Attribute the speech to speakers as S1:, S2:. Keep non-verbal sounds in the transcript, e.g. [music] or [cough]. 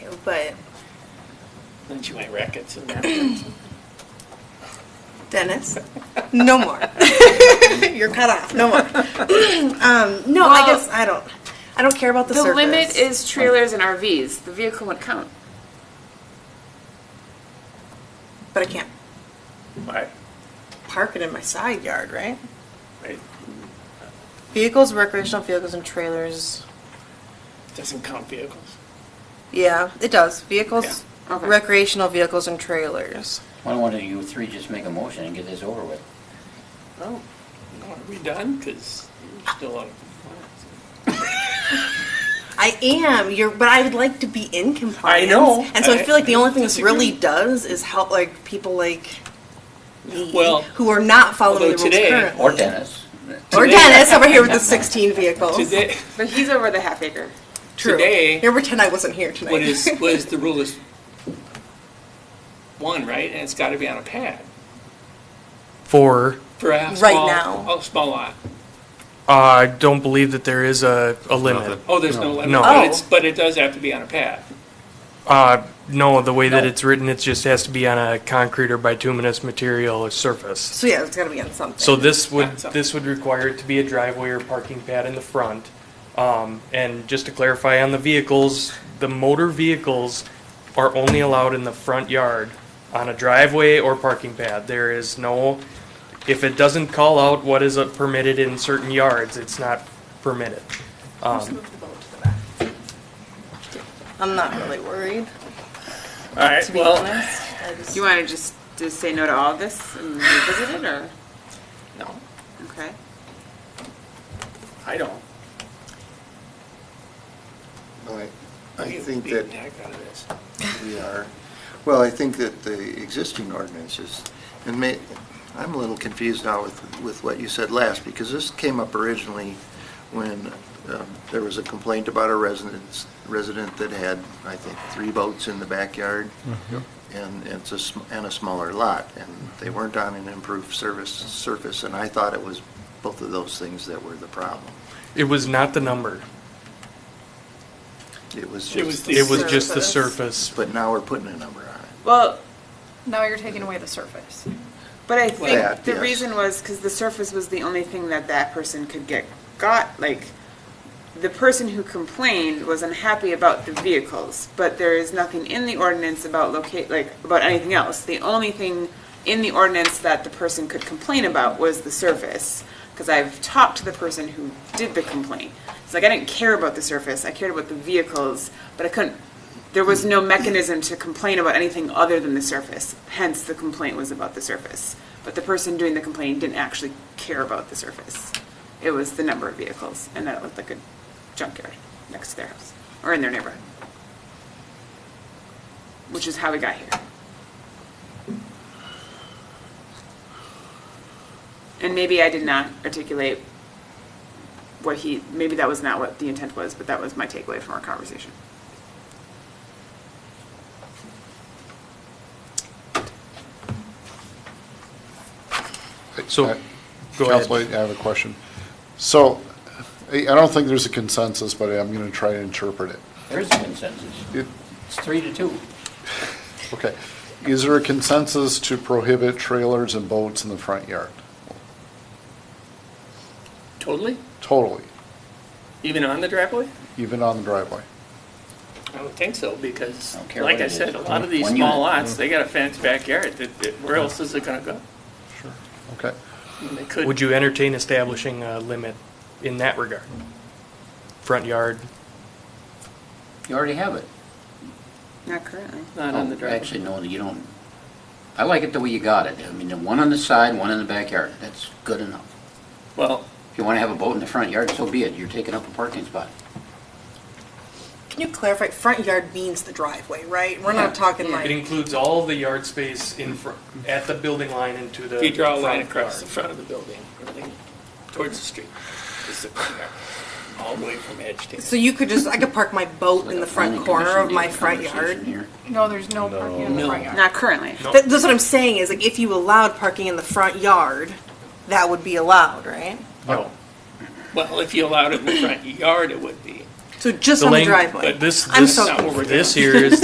S1: but
S2: Then she went rackets and napkins.
S3: [laughs]
S1: Dennis, no more. [laughs] You're cut
S3: [laughs]
S1: off. No more. um, no, I
S4: Well-
S1: guess I don't. I don't care about the,
S4: The
S1: surface.
S4: limit is trailers and RVs. The vehicle would count.
S1: but I can't
S2: Why?
S1: park it in my side yard, right?
S2: Right?
S3: Vehicles, recreational vehicles, and trailers.
S2: Doesn't count vehicles.
S3: Yeah, it does. Vehicles,
S4: Yeah. Okay.
S3: recreational vehicles, and trailers.
S5: Why don't one of you three just make a motion and get this over with?
S3: Oh.
S2: Are we done? Because there's still a lot of complaints.
S1: I am. You're, but I would like to be in compliance.
S2: I know.
S1: And so I,
S2: I-
S1: feel like the only thing this
S2: disagree.
S1: really does is help like people like me
S2: Well,
S1: who are not following the rules
S2: although today-
S1: currently.
S5: Or Dennis?
S1: Or
S2: Today-
S1: Dennis over here with the 16 vehicles.
S2: Today,
S4: But he's over the half acre.
S1: True.
S2: today-
S1: Here, pretend I wasn't here tonight.
S2: what [laughs] is, what is the rule is one, right? And it's gotta be on a pad
S6: for.
S2: for a
S1: Right
S2: small,
S1: now.
S2: a small lot.
S6: Uh, I don't believe that there is a, a limit.
S2: Oh, there's no limit,
S6: No.
S2: but it's, but it does have to be on a pad.
S6: Uh, no, the way that
S5: No.
S6: it's written, it just has to be on a concrete or bituminous material or
S1: [laughs]
S6: surface.
S1: so yeah, it's got to be on something.
S6: So this would,
S2: That's up.
S6: this would require it to be a driveway or parking pad in the front. Um, and just to clarify on the vehicles, the motor vehicles are only allowed in the front yard on a driveway or parking pad. There is no, if it doesn't call out what is uh, permitted in certain yards, it's not permitted. Um,
S3: I'm not really worried.
S2: All right,
S3: To be
S2: well,
S3: honest, I just-
S4: You want to just, just say no to all this and revisit it, or
S2: no,
S4: okay?
S2: I don't.
S7: I, I
S2: You
S7: think
S2: beat
S7: that
S2: the heck out of this.
S7: we are, well, I think that the existing ordinances, and may, I'm a little confused now with, with what you said last, because this came up originally when um, there was a complaint about a residence, resident that had, I think, three boats in the backyard, and it's a, sm- and a smaller lot, and they weren't on an improved service, surface, and I thought it was both of those things that were the problem.
S6: It was not the number.
S7: It was
S2: It was
S7: just,
S2: the-
S6: It was just the
S8: Surface.
S6: surface.
S7: but now we're putting a number on it.
S4: Well,
S8: Now you're taking away the surface.
S4: but I
S7: Well, yeah,
S4: think the
S7: yes.
S4: reason was because the surface was the only thing that that person could get got. Like, the person who complained was unhappy about the vehicles, but there is nothing in the ordinance about locate, like, about anything else. The only thing in the ordinance that the person could complain about was the surface. Because I've talked to the person who did the complaint. It's like, I didn't care about the surface, I cared about the vehicles, but I couldn't, there was no mechanism to complain about anything other than the surface. Hence, the complaint was about the surface. But the person doing the complaining didn't actually care about the surface. It was the number of vehicles, and that it looked like a junkyard next to their house, or in their neighborhood. Which is how we got here. And maybe I did not articulate what he, maybe that was not what the intent was, but that was my takeaway from our conversation.
S6: So,
S9: I-
S6: go ahead.
S9: Council, Uh, I have a question. So, I I don't think there's a consensus, but I'm going to try and interpret it.
S5: There is a consensus.
S9: It-
S5: It's three to two.
S9: Okay. Is there a consensus to prohibit trailers and boats in the front yard?
S2: Totally?
S9: Totally,
S2: Even on the driveway?
S9: even on the driveway?
S2: I don't think so, because,
S5: I don't care
S2: like
S5: what
S2: I
S5: it
S2: said,
S5: is.
S2: a lot of these
S5: One
S2: small
S5: unit.
S2: lots, they got a fenced backyard, that, that- where else is it gonna go?
S9: Okay.
S2: I mean, They
S6: would
S2: could,
S6: you entertain establishing a limit in that regard? Front yard?
S5: You already have it.
S4: Not currently.
S2: not on the driveway.
S5: Oh, Actually, no, you don't. I like it the way you got it. I mean, the one on the side, one in the backyard. That's good enough.
S2: Well,
S5: If you want to have a boat in the front yard, so be it. You're taking up a parking spot.
S1: Can you clarify? Front yard means the driveway, right? We're
S5: Yeah.
S1: not talking like.
S6: It includes all the yard space in front, at the building line and to the.
S2: if you draw a line
S6: front
S2: across the
S6: yard.
S2: front of the building, everything towards the street, is the front yard, all the way from edge to
S1: So
S2: edge.
S1: you could just, I could park my boat in the front
S5: Planning
S1: corner of
S5: commission
S1: my
S5: did a
S1: front
S5: conversation
S1: yard.
S5: here.
S8: No, there's no parking in the
S2: No.
S8: front yard.
S4: Not currently.
S6: No.
S1: That, that's what I'm saying is like if you allowed parking in the front yard, that would be allowed, right?
S6: No.
S2: Well, if you allowed it in the front yard, it would be.
S1: So just
S6: The
S1: on the
S6: lang- uh,
S1: driveway.
S6: This,
S1: I'm
S6: this,
S1: so
S2: confused.
S6: this here is